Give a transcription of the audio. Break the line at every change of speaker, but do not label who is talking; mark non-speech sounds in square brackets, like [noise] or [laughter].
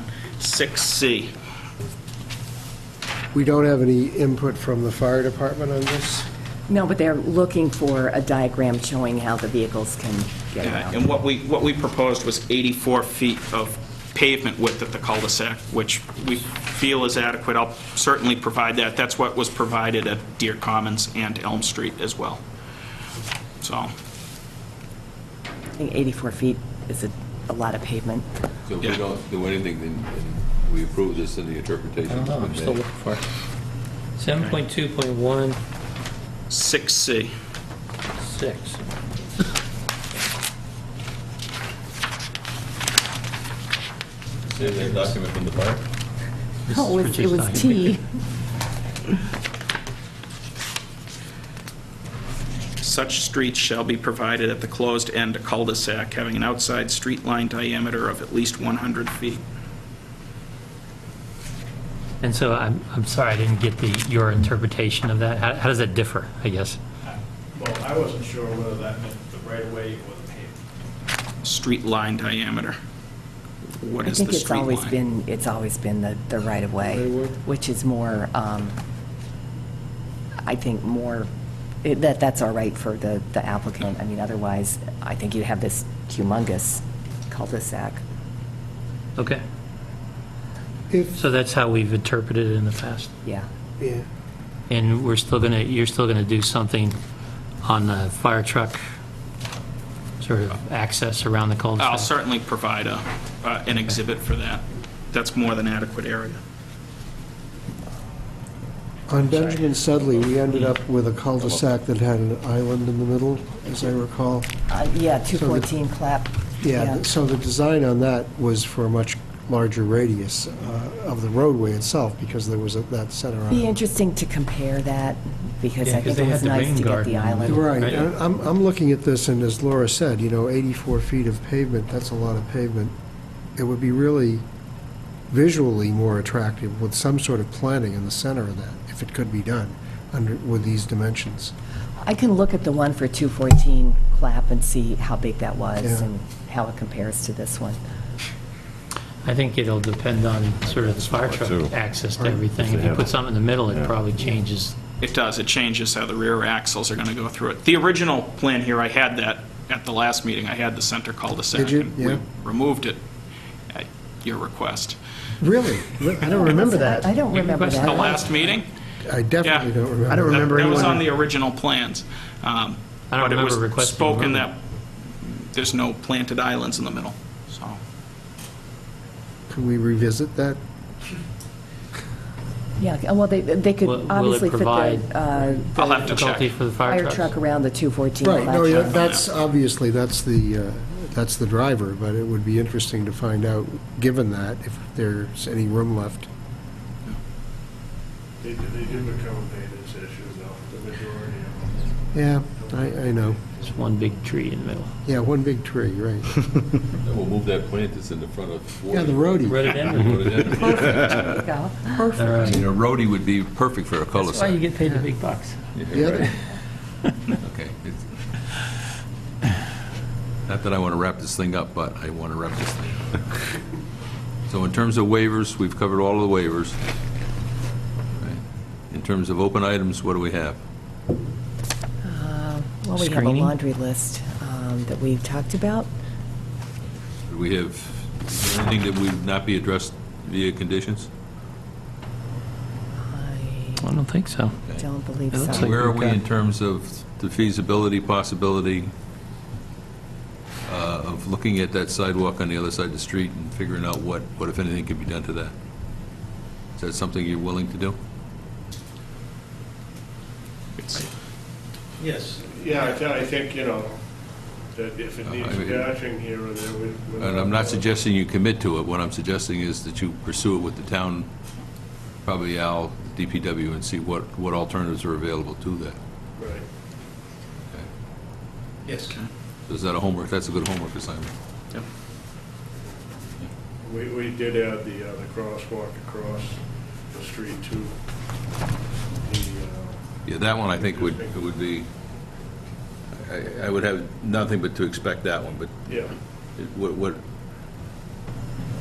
2.16C.
We don't have any input from the fire department on this?
No, but they're looking for a diagram showing how the vehicles can get
And
around.
what we, what we proposed was 84 feet of pavement width at the cul-de-sac, which we feel is adequate. I'll certainly provide that. That's what was provided at Deer Commons and Elm Street as well. So,
I think 84 feet is a- a lot of pavement.
So if we
Yeah.
don't do anything, then then we approve this in the interpretation.
I don't know, I'm
that's
still
been
looking
made.
for it. 7.2.16.
6C.
Save that document from the fire?
Oh, it was- it was T.
Such streets shall be provided at the closed end of cul-de-sac having an outside street line diameter of at least 100 feet.
And so I'm, I'm sorry, I didn't get the, your interpretation of that. How, how does that differ, I guess?
Well, I wasn't sure whether that meant the right-of-way or the pavement.
Street line diameter. What
I
is the
think
street line?
it's always been, it's always been the, the right-of-way, which is more, um, I think more, it- that, that's all right for the, the applicant. I mean, otherwise, I think you'd have this humongous cul-de-sac.
Okay,
If,
so that's how we've interpreted it in the past.
Yeah.
yeah,
And we're still going to, you're still going to do something on the fire truck sort of access around the cul-de-sac?
I'll certainly provide a, uh, an exhibit for that. That's more than adequate area.
on Benjamin Sedley, we ended up with a cul-de-sac that had an island in the middle, as I recall.
Uh, Yeah, 214 clap.
Yeah, so the design on that was for a much larger radius uh, of the roadway itself, because there was a- that center
Be
island.
interesting to compare that, because
Yeah,
I
'cause
think
they
it
had
was
the
nice
rain
to get
garden
the
on
island.
Right,
Right.
and I'm, I'm looking at this, and as Laura said, you know, 84 feet of pavement, that's a lot of pavement. It would be really visually more attractive with some sort of planting in the center of that, if it could be done, under, with these dimensions.
I can look at the one for 214 clap and see how big that was
Yeah.
and how it compares to this one.
I think it'll depend on sort of the fire truck access to everything. If you put something in the middle, it probably changes.
It does, it changes how the rear axles are going to go through it. The original plan here, I had that at the last meeting, I had the center cul-de-sac.
Did you?
and we
Yeah.
Removed it at your request.
Really? I don't remember
I
that.
don't remember
The
that.
last meeting?
I
Yeah.
definitely don't remember.
I don't
That-
remember
That was
anyone-
on the original plans. I
I don't remember
But it was
requesting
spoken
removal.
that there's no planted islands in the middle, so.
Can we revisit that?
Yeah, uh, well, they, they could
Will- will it
obviously fit the
provide-
uh,
I'll have to check.
Difficulty for the fire
fire
trucks.
truck around the 214
Right,
clap.
no, yeah, that's, obviously, that's the, uh, that's the driver, but it would be interesting to find out, given that, if there's any room left.
They, they do become maintenance issues, though, the majority of them.
Yeah, I, I know.
It's one big tree in the middle.
Yeah, one big tree, right.
Then we'll move that plant that's in the front of.
Yeah, the roadie.
[laughs]
Rhododendron.
Put it in.
There you go.
All
I mean,
right.
a roadie would be perfect for a
That's why you
cul-de-sac.
get paid the big bucks.
The
Yeah,
other-
right. Okay. It's- Not that I want to wrap this thing up, but I want to wrap this thing up. [laughs] So in terms of waivers, we've covered all of the waivers. Right. In terms of open items, what do we have?
Well, we have a
Screening?
laundry list um, that we've talked about.
Do we have is there anything that would not be addressed via conditions?
I
I don't think so.
don't believe
It looks
so.
like
Where are
we've
we
got-
in terms of the feasibility, possibility uh, of looking at that sidewalk on the other side of the street and figuring out what, what if anything could be done to that? Is that something you're willing to do?
it's-
Yes.
Yeah, I, thi- I think, you know, that if it
Uh,
needs
I mean-
patching here or there, we. we-
And I'm not suggesting you commit to it, what I'm suggesting is that you pursue it with the town, probably Al, DPW, and see what, what alternatives are available to that.
Right.
Yes.
Is that a homework, that's a good homework assignment.
yep.
We, we did add the, uh, the crosswalk across the street to the, uh,
Yeah, that one I think would, it would be, I, I would have nothing but to expect that one, but
yeah.
What, what,